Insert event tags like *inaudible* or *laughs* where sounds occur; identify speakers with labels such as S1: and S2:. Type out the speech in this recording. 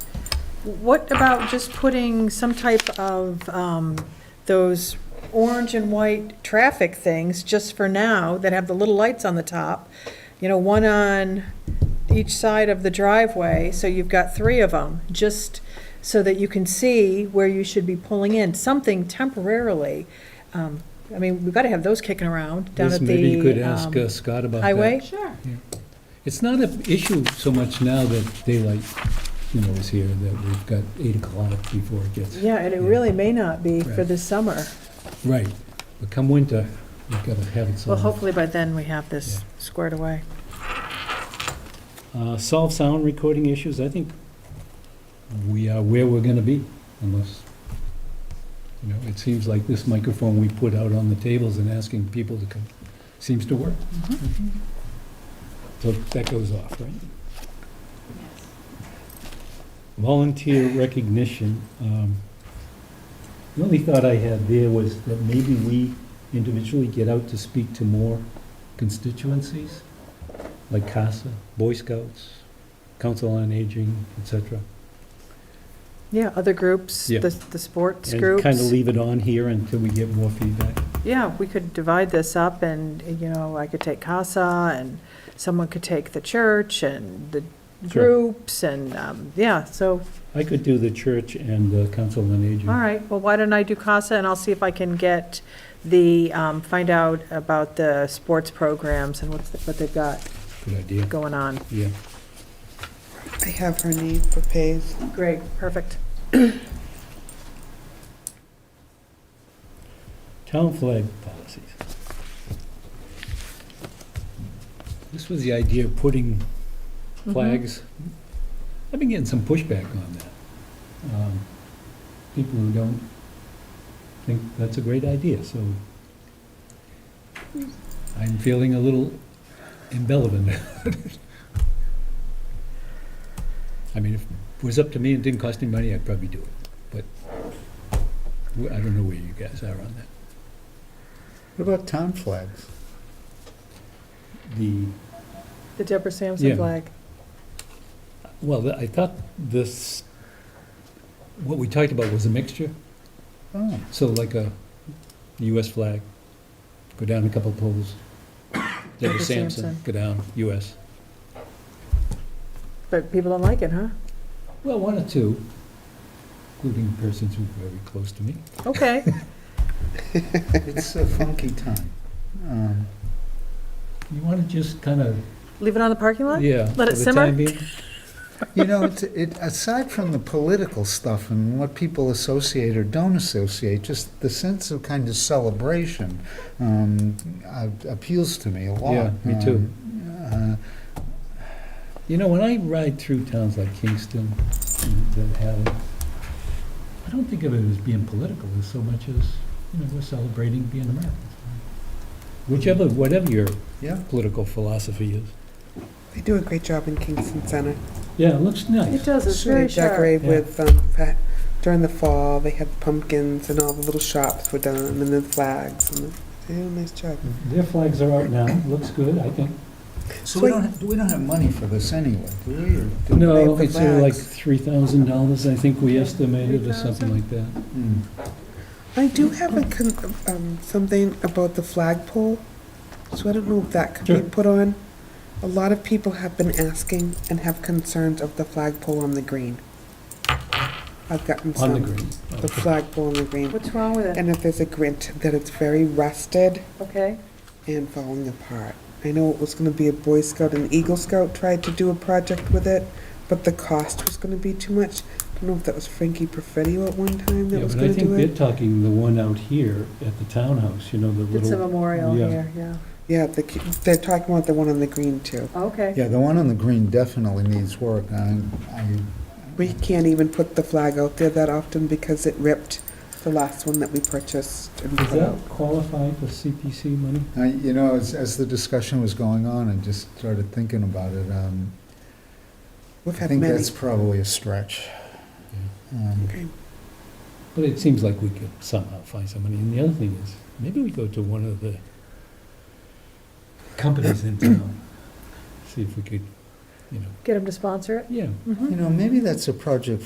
S1: What about just putting some type of um, those orange and white traffic things, just for now, that have the little lights on the top? You know, one on each side of the driveway, so you've got three of them, just so that you can see where you should be pulling in, something temporarily. Um, I mean, we've got to have those kicking around down
S2: Liz,
S1: at the.
S2: maybe you could ask
S1: um,
S2: uh, Scott about that.
S1: Highway?
S3: Sure.
S2: It's not an issue so much now that daylight, you know, is here, that we've got eight o'clock before it gets,
S1: Yeah, and it really may not be for
S2: Right.
S1: this summer.
S2: right. But come winter, we've got to have it
S1: Well,
S2: solved.
S1: hopefully by then we have this squared away.
S2: Uh, Solve sound recording issues, I think we are where we're going to be unless, you know, it seems like this microphone we put out on the tables and asking people to come seems to work. So that goes off, right? Volunteer recognition. um, The only thought I had there was that maybe we individually get out to speak to more constituencies, like CASA, Boy Scouts, Council on Aging, et cetera.
S1: Yeah, other groups, the,
S2: Yeah.
S1: the sports
S2: And kind of
S1: groups.
S2: leave it on here until we get more feedback.
S1: Yeah, we could divide this up and, you know, I could take CASA and someone could take the church and the
S2: Sure. Mm-hmm.
S1: groups and, um, yeah, so,
S2: I could do the church and the Council on Aging.
S1: all right, well, why don't I do CASA and I'll see if I can get the, um, find out about the sports programs and what's, the- what they've got
S2: Good idea,
S1: going on.
S2: yeah.
S4: I have her name for Pays.
S1: Great, perfect.
S2: Town flag policies. This was the idea of putting
S1: Mhm.
S2: flags. I've been getting some pushback on that. Um, People who don't think that's a great idea, so I'm feeling a little irrelevant. I mean, if it was up to me and didn't cost any money, I'd probably do it, but I don't know where you guys are on that.
S5: What about town flags?
S2: The,
S1: The Deborah Sampson
S2: Yeah.
S1: flag.
S2: well, I thought this, what we talked about was a mixture.
S5: Oh,
S2: So like a US flag, go down a
S1: *coughs*
S2: couple poles. Deborah
S1: Deborah
S2: Sampson,
S1: Sampson.
S2: go down, US.
S1: But people don't like it, huh?
S2: Well, one or two, including persons who are very close to me. *laughs*
S1: Okay.
S5: it's a funky time. Um,
S2: You want to just kind of,
S1: Leave it on the parking lot?
S2: yeah.
S1: Let it
S2: for the
S1: simmer?
S2: time being.
S5: You know, it's- it, aside from the political stuff and what people associate or don't associate, just the sense of kind of celebration um, uh, appeals to me a lot.
S2: Yeah, me too.
S5: Um,
S2: You know, when I ride through towns like Kingston and that have, it, I don't think of it as being political as so much as, you know, we're celebrating being Americans. Whichever, whatever your
S5: uh, Yeah,
S2: political philosophy is.
S4: They do a great job in Kingston Center.
S2: Yeah, it looks
S1: It
S2: nice.
S1: does, it's very
S4: They
S1: sharp.
S4: decorate
S2: Yeah.
S4: with, um, pa- during the fall, they had pumpkins and all the little shops were done and the flags and they do a nice job.
S2: Their flags are out now, looks good, I think.
S5: so we don't, we don't have money for this anyway, do we? or do we?
S2: No,
S4: the
S2: it's uh, like
S4: flags.
S2: three thousand dollars, I think we estimated, or something like that.
S5: Hmm.
S4: I do have a, con- um, something about the flagpole, so I don't know if that could
S2: Sure.
S4: be put on. A lot of people have been asking and have concerns of the flagpole on the green. I've gotten some.
S2: On the green.
S4: The flagpole on the green.
S1: What's wrong with it?
S4: And if there's a grint, that it's very rusted
S1: Okay.
S4: and falling apart. I know it was gonna be a Boy Scout and Eagle Scout tried to do a project with it, but the cost was gonna be too much. I don't know if that was Frankie Perfetti at one time that
S2: Yeah,
S4: was
S2: but I
S4: gonna
S2: think
S4: do
S2: they're
S4: it.
S2: talking the one out here at the townhouse, you know, the
S1: It's a
S2: little,
S1: memorial
S2: Yeah.
S1: here, yeah.
S4: Yeah, the, ki- they're talking about the one on the green too.
S1: Okay.
S5: Yeah, the one on the green definitely needs work. I, I,
S4: We can't even put the flag out there that often because it ripped the last one that we purchased and
S2: does
S4: put out.
S2: that qualify for CPC money?
S5: I- you know, as, as the discussion was going on, I just started thinking about it. Um,
S4: We've
S5: I
S4: had
S5: think
S4: many.
S5: that's probably a stretch. Um,
S4: Okay.
S2: But it seems like we could somehow find some money. And the other thing is, maybe we go to one of the companies in town, see if we could, you know,
S1: Get them to sponsor it?
S2: yeah,
S1: Mm-hmm.
S5: You know, maybe that's a project